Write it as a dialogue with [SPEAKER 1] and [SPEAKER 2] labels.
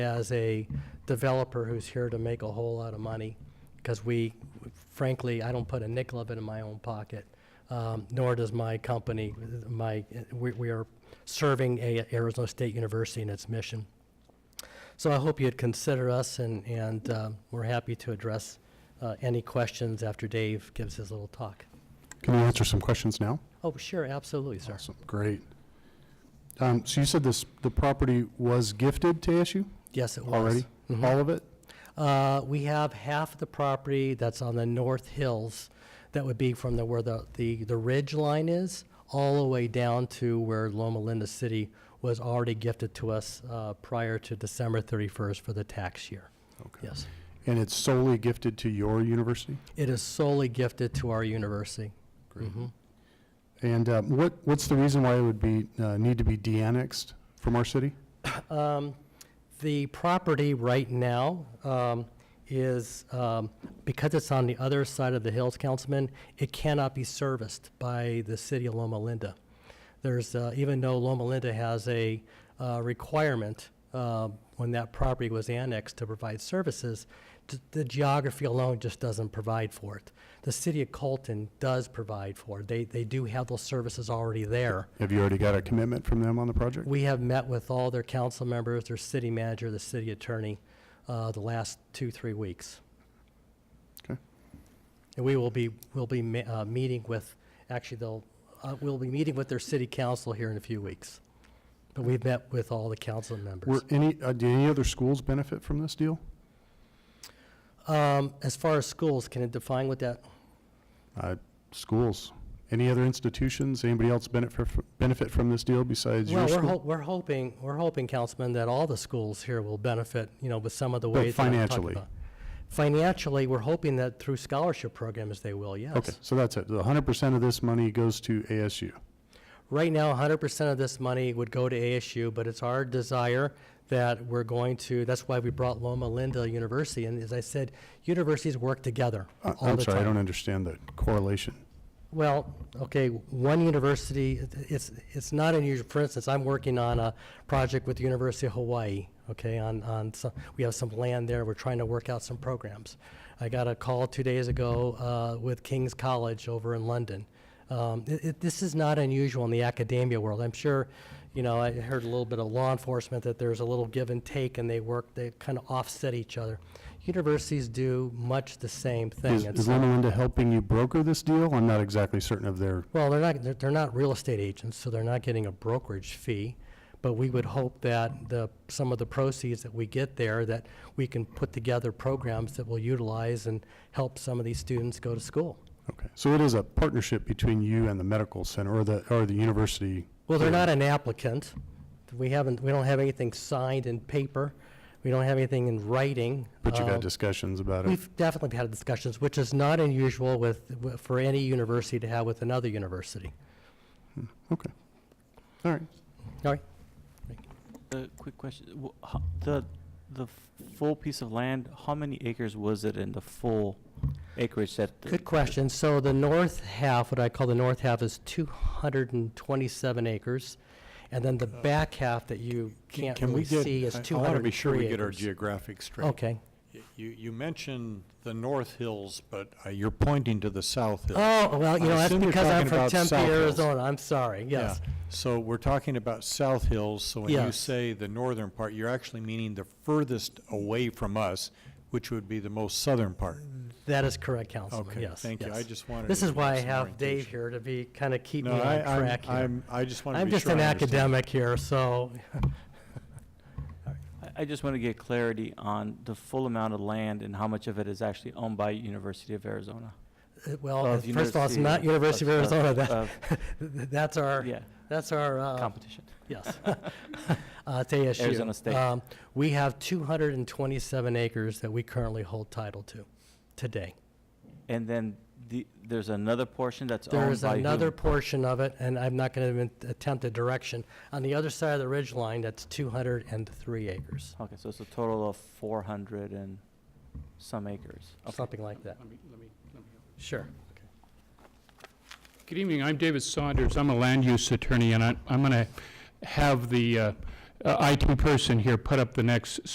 [SPEAKER 1] as a developer who's here to make a whole lot of money, because we, frankly, I don't put a nickel of it in my own pocket, um, nor does my company, my, we we are serving a- Arizona State University and its mission. So I hope you'd consider us, and, and um, we're happy to address uh, any questions after Dave gives his little talk.
[SPEAKER 2] Can we answer some questions now?
[SPEAKER 1] Oh, sure, absolutely, sir.
[SPEAKER 2] Awesome, great. Um, So you said this, the property was gifted to ASU
[SPEAKER 1] Yes, it was. Mm-hmm.
[SPEAKER 2] already? All of it?
[SPEAKER 1] Uh, We have half of the property that's on the north hills that would be from the, where the, the, the ridge line is, all the way down to where Loma Linda City was already gifted to us uh, prior to December 31st for the tax year.
[SPEAKER 2] Okay.
[SPEAKER 1] Yes.
[SPEAKER 2] And it's solely gifted to your university?
[SPEAKER 1] It is solely gifted to our university. Mm-hmm.
[SPEAKER 2] Great. Mm-hmm. And um, what, what's the reason why it would be, uh, need to be de-annexed from our city?
[SPEAKER 1] Um, The property right now um, is, um, because it's on the other side of the hills, Councilman, it cannot be serviced by the city of Loma Linda. There's, uh, even though Loma Linda has a uh, requirement uh, when that property was annexed to provide services, th- the geography alone just doesn't provide for it. The city of Colton does provide for it. They, they do have those services already there.
[SPEAKER 2] Have you already got a commitment from them on the project?
[SPEAKER 1] We have met with all their council members, their city manager, the city attorney, uh, the last two, three weeks.
[SPEAKER 2] Okay.
[SPEAKER 1] And we will be, we'll be ma- uh, meeting with, actually, they'll, uh, we'll be meeting with their city council here in a few weeks. But we've met with all the council members.
[SPEAKER 2] Were any, uh, do any other schools benefit from this deal?
[SPEAKER 1] Um, As far as schools, can it define what that,
[SPEAKER 2] Uh, Schools? Any other institutions? Anybody else benefit, fr- benefit from this deal besides
[SPEAKER 1] well,
[SPEAKER 2] your
[SPEAKER 1] we're
[SPEAKER 2] school?
[SPEAKER 1] ho- we're hoping, we're hoping, Councilman, that all the schools here will benefit, you know, with some of the
[SPEAKER 2] But
[SPEAKER 1] ways that I'm talking
[SPEAKER 2] financially.
[SPEAKER 1] about. Financially, we're hoping that through scholarship programs, they will, yes.
[SPEAKER 2] Okay, so that's it. The hundred percent of this money goes to ASU.
[SPEAKER 1] Right now, 100% of this money would go to ASU, but it's our desire that we're going to, that's why we brought Loma Linda University, and as I said, universities work together
[SPEAKER 2] I-
[SPEAKER 1] all
[SPEAKER 2] Uh, I'm
[SPEAKER 1] the
[SPEAKER 2] sorry, I
[SPEAKER 1] time.
[SPEAKER 2] don't understand the correlation.
[SPEAKER 1] Well, okay, one university, it- it's, it's not unusual, for instance, I'm working on a project with the University of Hawaii, okay, on, on, some- we have some land there, we're trying to work out some programs. I got a call two days ago uh, with King's College over in London. Um, it- it- This is not unusual in the academia world. I'm sure, you know, I heard a little bit of law enforcement, that there's a little give and take, and they work, they kind of offset each other. Universities do much the same thing.
[SPEAKER 2] Is
[SPEAKER 1] It's
[SPEAKER 2] is
[SPEAKER 1] not-
[SPEAKER 2] Loma Linda helping you broker this deal? I'm not exactly certain of their,
[SPEAKER 1] well, they're not, they're- they're not real estate agents, so they're not getting a brokerage fee, but we would hope that the, some of the proceeds that we get there, that we can put together programs that will utilize and help some of these students go to school.
[SPEAKER 2] okay. So it is a partnership between you and the medical center or the, or the university?
[SPEAKER 1] Well, they're not an applicant. We haven't, we don't have anything signed in paper. We don't have anything in writing.
[SPEAKER 2] But you've
[SPEAKER 1] Um,
[SPEAKER 2] had discussions about it?
[SPEAKER 1] We've definitely had discussions, which is not unusual with, wi- for any university to have with another university.
[SPEAKER 2] Hmm, Okay. All right.
[SPEAKER 1] All right?
[SPEAKER 3] A quick question. Wh- ho- The, the f- full piece of land, how many acres was it in the full acreage that? the-
[SPEAKER 1] Good question. So the north half, what I call the north half, is 227 acres. And then the back half that you can't
[SPEAKER 4] Oh. Can we
[SPEAKER 1] really
[SPEAKER 4] get-
[SPEAKER 1] see is
[SPEAKER 4] I-
[SPEAKER 1] 203
[SPEAKER 4] I want to be sure we get our
[SPEAKER 1] acres.
[SPEAKER 4] geographic straight.
[SPEAKER 1] Okay.
[SPEAKER 4] Y- You, you mentioned the North Hills, but uh, you're pointing to the South Hills.
[SPEAKER 1] Oh, well, you
[SPEAKER 4] I
[SPEAKER 1] know, that's
[SPEAKER 4] assume you're
[SPEAKER 1] because I'm
[SPEAKER 4] talking
[SPEAKER 1] from
[SPEAKER 4] about
[SPEAKER 1] Tempe,
[SPEAKER 4] South Hills.
[SPEAKER 1] Arizona. I'm sorry,
[SPEAKER 4] Yeah.
[SPEAKER 1] yes.
[SPEAKER 4] So we're talking about South Hills, so when you
[SPEAKER 1] Yes.
[SPEAKER 4] say the northern part, you're actually meaning the furthest away from us, which would be the most southern part.
[SPEAKER 1] That is correct, Councilman,
[SPEAKER 4] Okay,
[SPEAKER 1] Mm. yes.
[SPEAKER 4] thank you. I
[SPEAKER 1] yes.
[SPEAKER 4] just wanted
[SPEAKER 1] This
[SPEAKER 4] to
[SPEAKER 1] is why I
[SPEAKER 4] get some
[SPEAKER 1] have Dave
[SPEAKER 4] orientation.
[SPEAKER 1] here to be, kind of keep me
[SPEAKER 4] No,
[SPEAKER 1] on
[SPEAKER 4] I, I'm-
[SPEAKER 1] track here.
[SPEAKER 4] I'm, I just want to
[SPEAKER 1] I'm
[SPEAKER 4] be
[SPEAKER 1] just
[SPEAKER 4] sure I
[SPEAKER 1] an
[SPEAKER 4] understand.
[SPEAKER 1] academic here, so,
[SPEAKER 3] I- I just want to get clarity on the full amount of land and how much of it is actually owned by University of Arizona.
[SPEAKER 1] well,
[SPEAKER 3] Of
[SPEAKER 1] first of all, it's
[SPEAKER 3] University
[SPEAKER 1] not
[SPEAKER 3] of-
[SPEAKER 1] University of
[SPEAKER 4] uh,
[SPEAKER 3] of-
[SPEAKER 1] Arizona. That-
[SPEAKER 3] of-
[SPEAKER 1] That's our,
[SPEAKER 3] Yeah,
[SPEAKER 1] that's our uh,
[SPEAKER 3] competition.
[SPEAKER 1] Yes. Uh, It's ASU.
[SPEAKER 3] Arizona State.
[SPEAKER 1] Uh, Um, We have 227 acres that we currently hold title to, today.
[SPEAKER 3] And then the, there's another portion that's owned by
[SPEAKER 1] There is another
[SPEAKER 3] whom?
[SPEAKER 1] portion of it, and I'm not going to attempt a direction. On the other side of the ridge line, that's 203 acres,
[SPEAKER 3] Okay, so it's a total of four hundred and some acres. Okay.
[SPEAKER 1] something like that.
[SPEAKER 5] Let me, let me, let me help.
[SPEAKER 1] Sure.
[SPEAKER 5] Good evening, I'm David Saunders, I'm a land use attorney, and I- I'm going to have the uh, uh, IT person here put up the next